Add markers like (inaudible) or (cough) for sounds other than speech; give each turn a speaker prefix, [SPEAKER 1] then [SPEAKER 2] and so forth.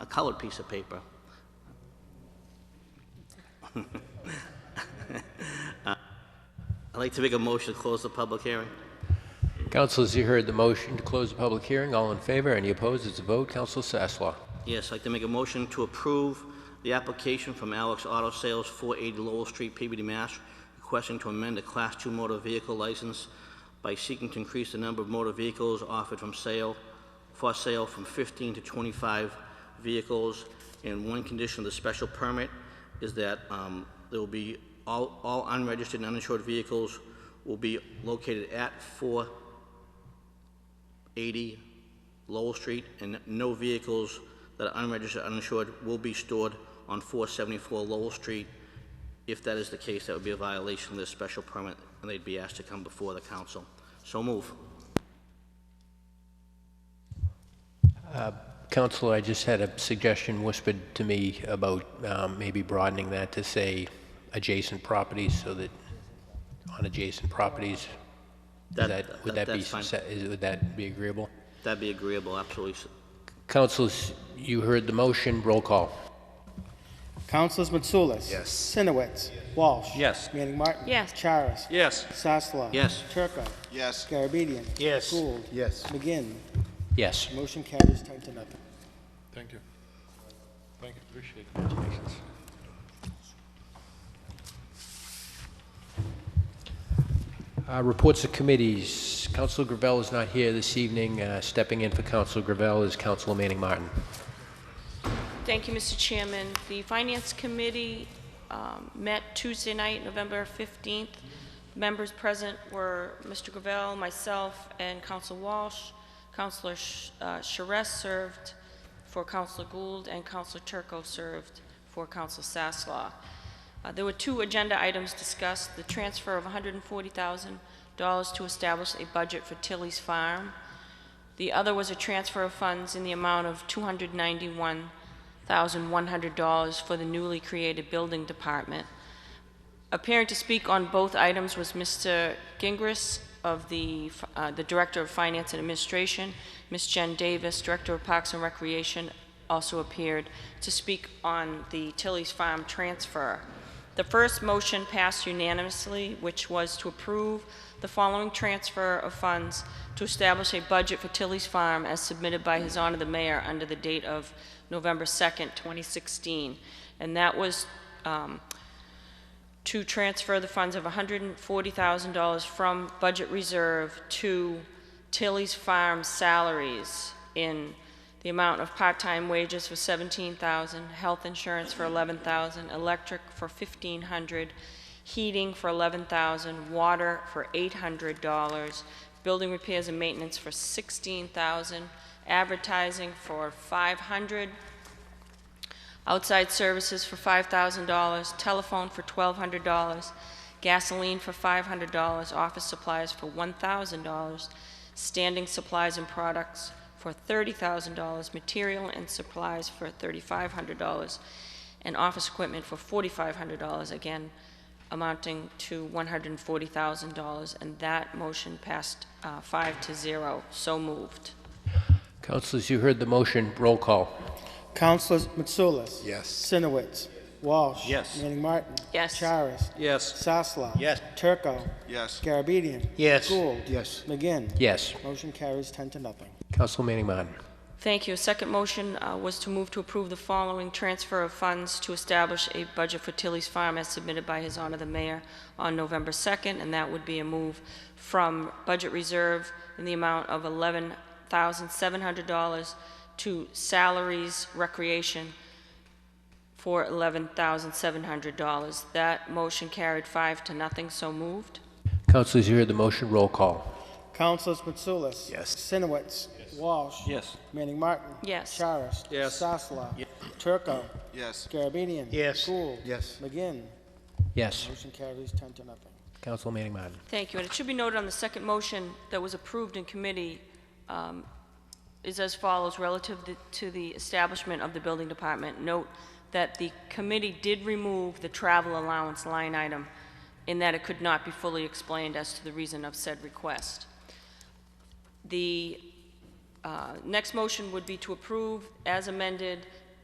[SPEAKER 1] colored piece of paper. (laughs) Uh, I'd like to make a motion to close the public hearing.
[SPEAKER 2] Councilors, you heard the motion to close the public hearing. All in favor? Any opposed? It's a vote. Council Sasslaw.
[SPEAKER 1] Yes, I'd like to make a motion to approve the application from Alex Auto Sales, 480 Lowell Street, PBD, Mass, requesting to amend the Class 2 motor vehicle license by seeking to increase the number of motor vehicles offered from sale, for sale from 15 to 25 vehicles. And one condition of the special permit is that um, there will be, all all unregistered and uninsured vehicles will be located at 4 80 Lowell Street, and no vehicles that are unregistered, uninsured will be stored on 474 Lowell Street. If that is the case, that would be a violation of this special permit, and they'd be asked to come before the council. So move.
[SPEAKER 2] Councilor, I just had a suggestion whispered to me about um, maybe broadening that to say adjacent properties so that on adjacent properties,
[SPEAKER 1] That-
[SPEAKER 2] is that, would
[SPEAKER 1] that-
[SPEAKER 2] that be,
[SPEAKER 1] that's fine.
[SPEAKER 2] sa- is- would that be agreeable?
[SPEAKER 1] That'd be agreeable, absolutely.
[SPEAKER 2] Councilors, you heard the motion. Roll call.
[SPEAKER 3] Councilors Mitsoulas. Yes. Sinowitz. Walsh.
[SPEAKER 4] Yes.
[SPEAKER 3] Manning Martin.
[SPEAKER 5] Yes.
[SPEAKER 3] Charis.
[SPEAKER 4] Yes.
[SPEAKER 3] Sasslaw.
[SPEAKER 1] Yes.
[SPEAKER 3] Turco.
[SPEAKER 6] Yes.
[SPEAKER 3] Garabedian.
[SPEAKER 4] Yes.
[SPEAKER 3] Gould.
[SPEAKER 6] Yes.
[SPEAKER 3] McGinn.
[SPEAKER 2] Yes.
[SPEAKER 3] Motion carries ten to nothing.
[SPEAKER 7] Thank you. Thank you, appreciate it.
[SPEAKER 2] Uh, Reports of committees. Councilor Gravel is not here this evening. Uh, Stepping in for Councilor Gravel is Councilor Manning Martin.
[SPEAKER 5] Thank you, Mr. Chairman. The Finance Committee um, met Tuesday night, November 15th. Members present were Mr. Gravel, myself, and Council Walsh. Councilor Sh- uh, Charest served for Council Gould, and Councilor Turco served for Council Sasslaw. Uh, There were two agenda items discussed, the transfer of $140,000 to establish a budget for Tilly's Farm, the other was a transfer of funds in the amount of $291,100 for the newly created building department. Appearing to speak on both items was Mr. Gingras of the, uh, the Director of Finance and Administration. Ms. Jen Davis, Director of Parks and Recreation, also appeared to speak on the Tilly's Farm transfer. The first motion passed unanimously, which was to approve the following transfer of funds to establish a budget for Tilly's Farm as submitted by His Honor the Mayor under the date of November 2nd, 2016. And that was um, to transfer the funds of $140,000 from budget reserve to Tilly's Farm salaries in the amount of part-time wages for $17,000, health insurance for $11,000, electric for $1,500, heating for $11,000, water for $800, building repairs and maintenance for $16,000, advertising for $500, outside services for $5,000, telephone for $1,200, gasoline for $500, office supplies for $1,000, standing supplies and products for $30,000, material and supplies for $3,500, and office equipment for $4,500, again amounting to $140,000. And that motion passed uh, five to zero. So moved.
[SPEAKER 2] Councilors, you heard the motion. Roll call.
[SPEAKER 3] Councilors Mitsoulas.
[SPEAKER 6] Yes.
[SPEAKER 3] Sinowitz. Walsh.
[SPEAKER 4] Yes.
[SPEAKER 3] Manning Martin.
[SPEAKER 5] Yes.
[SPEAKER 3] Charis.
[SPEAKER 4] Yes.
[SPEAKER 3] Sasslaw.
[SPEAKER 4] Yes.
[SPEAKER 3] Turco.
[SPEAKER 6] Yes.
[SPEAKER 3] Garabedian.
[SPEAKER 4] Yes.
[SPEAKER 3] Gould.
[SPEAKER 6] Yes.
[SPEAKER 3] McGinn.
[SPEAKER 2] Yes.
[SPEAKER 3] Motion carries ten to nothing.
[SPEAKER 2] Councilor Manning Martin.
[SPEAKER 5] Thank you. Second motion uh, was to move to approve the following transfer of funds to establish a budget for Tilly's Farm as submitted by His Honor the Mayor on November 2nd, and that would be a move from budget reserve in the amount of $11,700 to salaries, recreation, for $11,700. That motion carried five to nothing, so moved.
[SPEAKER 2] Councilors, you heard the motion. Roll call.
[SPEAKER 3] Councilors Mitsoulas.
[SPEAKER 6] Yes.
[SPEAKER 3] Sinowitz. Walsh.
[SPEAKER 4] Yes.
[SPEAKER 3] Manning Martin.
[SPEAKER 5] Yes.
[SPEAKER 3] Charis.
[SPEAKER 4] Yes.
[SPEAKER 3] Sasslaw. Turco.
[SPEAKER 6] Yes.
[SPEAKER 3] Garabedian.
[SPEAKER 4] Yes.
[SPEAKER 3] Gould.
[SPEAKER 6] Yes.
[SPEAKER 3] McGinn.
[SPEAKER 2] Yes.
[SPEAKER 3] Motion carries ten to nothing.
[SPEAKER 2] Councilor Manning Martin.
[SPEAKER 5] Thank you. And it should be noted on the second motion that was approved in committee um, is as follows relative th- to the establishment of the building department. Note that the committee did remove the travel allowance line item in that it could not be fully explained as to the reason of said request. The uh, next motion would be to approve, as amended,